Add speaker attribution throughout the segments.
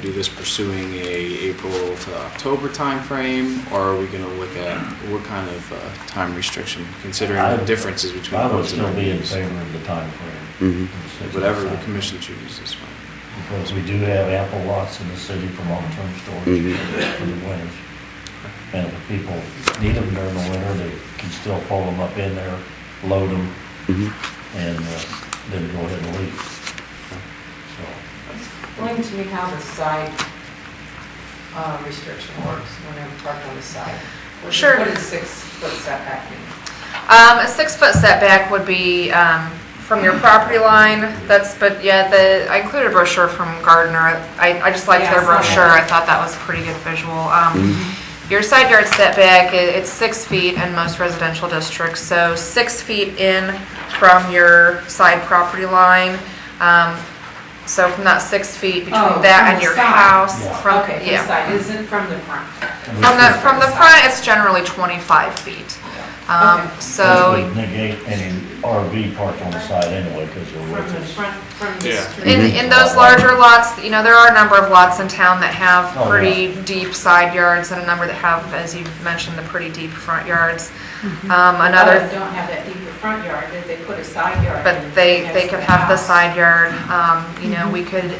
Speaker 1: do this pursuing a April to October timeframe, or are we gonna look at what kind of uh, time restriction, considering
Speaker 2: I-
Speaker 1: the differences between
Speaker 2: I would
Speaker 1: clubs and
Speaker 2: still be in
Speaker 1: venues?
Speaker 2: favor of the timeframe.
Speaker 3: Mhm.
Speaker 2: of six
Speaker 1: Whatever the
Speaker 2: months.
Speaker 1: commission chooses is fine.
Speaker 2: Because we do have ample lots in the city for long-term storage
Speaker 3: Mhm.
Speaker 1: Mm.
Speaker 2: for the winters. And if people need them during the winter, they can still pull them up in there, load them,
Speaker 3: Mhm.
Speaker 2: and uh, then go ahead and leave. So,
Speaker 4: Explain to me how the side uh, restriction works when I'm parked on the side. What-
Speaker 5: Sure.
Speaker 4: What does six-foot setback mean?
Speaker 5: Um, a six-foot setback would be, um, from your property line, that's, but yeah, the, I included a brochure from Gardner. I, I just liked their
Speaker 4: Yeah, I saw that.
Speaker 5: brochure, I thought that was a pretty good visual. Um, your side yard setback, i- it's six feet in most residential districts, so six feet in from your side property line. Um, so from that six feet
Speaker 4: Oh,
Speaker 5: between that
Speaker 4: from
Speaker 5: and
Speaker 4: the
Speaker 5: your
Speaker 4: side.
Speaker 5: house,
Speaker 2: Yeah.
Speaker 5: from,
Speaker 4: Okay, from the
Speaker 5: yeah.
Speaker 4: side, isn't from the front.
Speaker 2: and
Speaker 5: From the,
Speaker 2: this
Speaker 5: from the front, it's generally twenty-five feet. Um,
Speaker 4: Okay.
Speaker 5: so.
Speaker 2: would Negate any RV parked on the side anyway, because they're
Speaker 4: From the
Speaker 2: with us.
Speaker 4: front, from the
Speaker 1: Yeah.
Speaker 4: street.
Speaker 5: In, in those larger lots, you know, there are a number of lots in town that have
Speaker 2: Oh, yeah.
Speaker 5: pretty deep side yards and a number that have, as you mentioned, the pretty deep front yards. Um,
Speaker 4: Others
Speaker 5: another,
Speaker 4: don't have that deeper front yard, if they put a side yard.
Speaker 5: but
Speaker 4: in
Speaker 5: they,
Speaker 4: next
Speaker 5: they
Speaker 4: to
Speaker 5: could have the
Speaker 4: house.
Speaker 5: side yard, um, you know, we could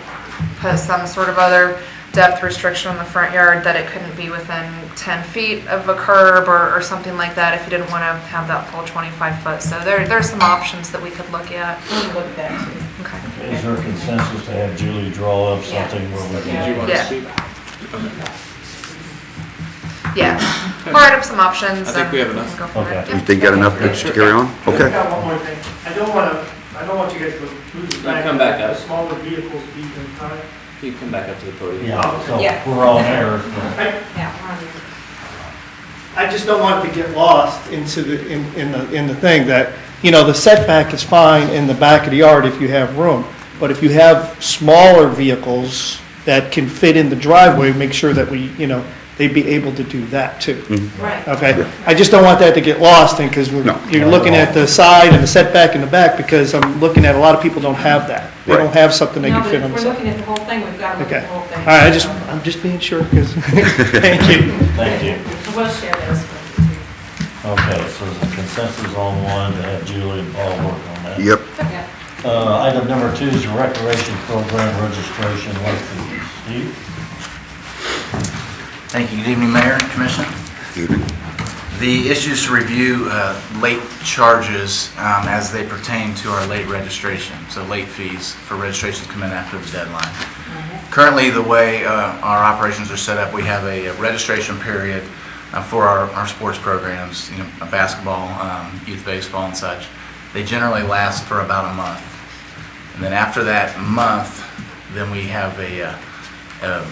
Speaker 5: put some sort of other depth restriction on the front yard that it couldn't be within ten feet of a curb or, or something like that if you didn't wanna have that full twenty-five foot. So there, there are some options that we could look at.
Speaker 4: We'll look at that too.
Speaker 5: Okay.
Speaker 2: Is there consensus to have Julie draw up
Speaker 4: Yeah.
Speaker 2: something where we
Speaker 1: Did you
Speaker 2: can?
Speaker 1: want to
Speaker 5: Yeah.
Speaker 1: speak?
Speaker 5: Yeah, part of some options.
Speaker 1: I think
Speaker 5: and
Speaker 1: we have enough.
Speaker 5: go from there.
Speaker 2: Okay.
Speaker 3: You think got enough to carry on?
Speaker 6: I've
Speaker 3: Okay.
Speaker 6: got one more thing. I don't want to, I don't want you guys to lose the fact
Speaker 1: come back
Speaker 6: that the
Speaker 1: up.
Speaker 6: smaller vehicles be in time.
Speaker 1: You can come back up to the podium.
Speaker 2: Yeah, so
Speaker 4: Yeah.
Speaker 2: we're on air.
Speaker 6: I,
Speaker 4: Yeah, we're on your-
Speaker 6: I just don't want it to get lost into the, in, in the, in the thing that, you know, the setback is fine in the back of the yard if you have room. But if you have smaller vehicles that can fit in the driveway, make sure that we, you know, they'd be able to do that too.
Speaker 4: Right.
Speaker 6: Okay, I just don't want that to get lost, and, because
Speaker 3: Mm-hmm. No.
Speaker 6: you're looking at the side and the setback in the back, because I'm looking at, a lot of people don't have that. They don't
Speaker 3: Right.
Speaker 6: have something they
Speaker 4: No,
Speaker 6: can
Speaker 4: but
Speaker 6: fit
Speaker 4: if
Speaker 6: on the
Speaker 4: we're
Speaker 6: side.
Speaker 4: looking at the whole thing, we've got to look
Speaker 6: Okay,
Speaker 4: at the whole thing.
Speaker 6: all right, I just, I'm just being sure, because, thank you.
Speaker 2: Thank you.
Speaker 4: We'll share those with you too.
Speaker 2: Okay, so the consensus on one, to have Julie and Paul work on that.
Speaker 3: Yep.
Speaker 4: Yeah.
Speaker 2: Uh, item number two is the recreation program registration listing. Steve?
Speaker 7: Thank you. Good evening, Mayor and Commission. The issues to review, uh, late charges um, as they pertain to our late registration, so late fees for registrations come in after the deadline. Currently, the way uh, our operations are set up, we have a registration period uh, for our our sports programs, you know, basketball, um, youth baseball and such. They generally last for about a month. And then after that month, then we have a, uh, a, a-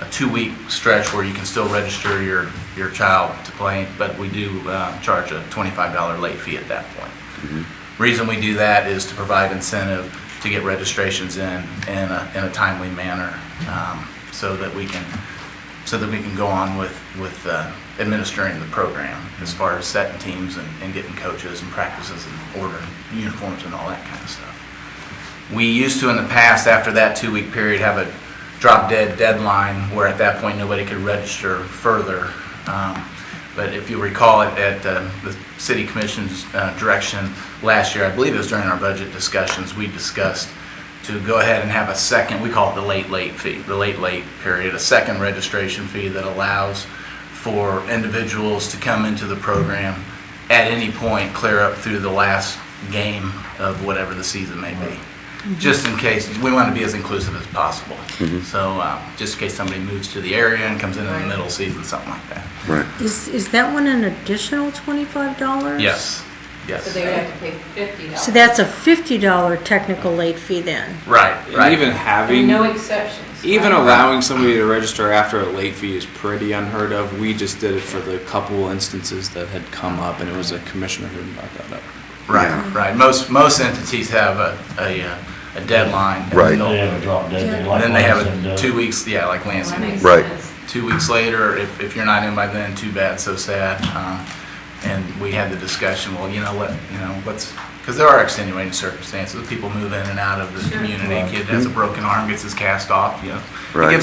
Speaker 7: a two-week stretch where you can still register your, your child to play, but we do uh, charge a $25 late fee at that point. Reason we do that is to provide incentive to get registrations in, in a, in a timely manner, um, so that we can, so that we can go on with, with uh, administering the program as far as setting teams and, and getting coaches and practices and ordering uniforms and all that kind of stuff. We used to in the past, after that two-week period, have a drop dead deadline where at that point, nobody could register further. Um, But if you recall, at- at uh, the city commission's uh, direction last year, I believe it was during our budget discussions, we discussed to go ahead and have a second, we call it the late late fee, the late late period, a second registration fee that allows for individuals to come into the program at any point, clear up through the last game of whatever the season may be
Speaker 4: Mm-hmm.
Speaker 7: just in case, we want to be as inclusive as possible. So, uh, just in case somebody moves to the area and comes in in the middle season, something like that.
Speaker 3: Right.
Speaker 8: Is, is that one an additional twenty-five dollars?
Speaker 7: Yes,
Speaker 4: So
Speaker 7: yes.
Speaker 4: they would have to pay fifty dollars.
Speaker 8: So that's a fifty dollar technical late fee then?
Speaker 7: Right,
Speaker 1: And
Speaker 7: right.
Speaker 1: even having.
Speaker 4: No exceptions.
Speaker 1: Even
Speaker 4: right?
Speaker 1: allowing somebody to register after a late fee is pretty unheard of. We just did it for the couple instances that had come up, and it was a commissioner who brought that up.
Speaker 7: Right, right. Most, most entities have a, a, uh, a deadline. and
Speaker 3: Right.
Speaker 2: They
Speaker 7: they'll-
Speaker 2: have a drop dead.
Speaker 7: And uh, then they have a two weeks, yeah, like
Speaker 4: Well,
Speaker 7: Lansing.
Speaker 4: that makes
Speaker 3: Right.
Speaker 4: sense.
Speaker 7: two weeks later, if, if you're not in by then, too bad, so sad. Um, And we had the discussion, well, you know, let, you know, let's, because there are extenuating circumstances, people move in and out of the community, kid has a broken arm, gets his cast off, you know. It
Speaker 3: Right.
Speaker 7: gives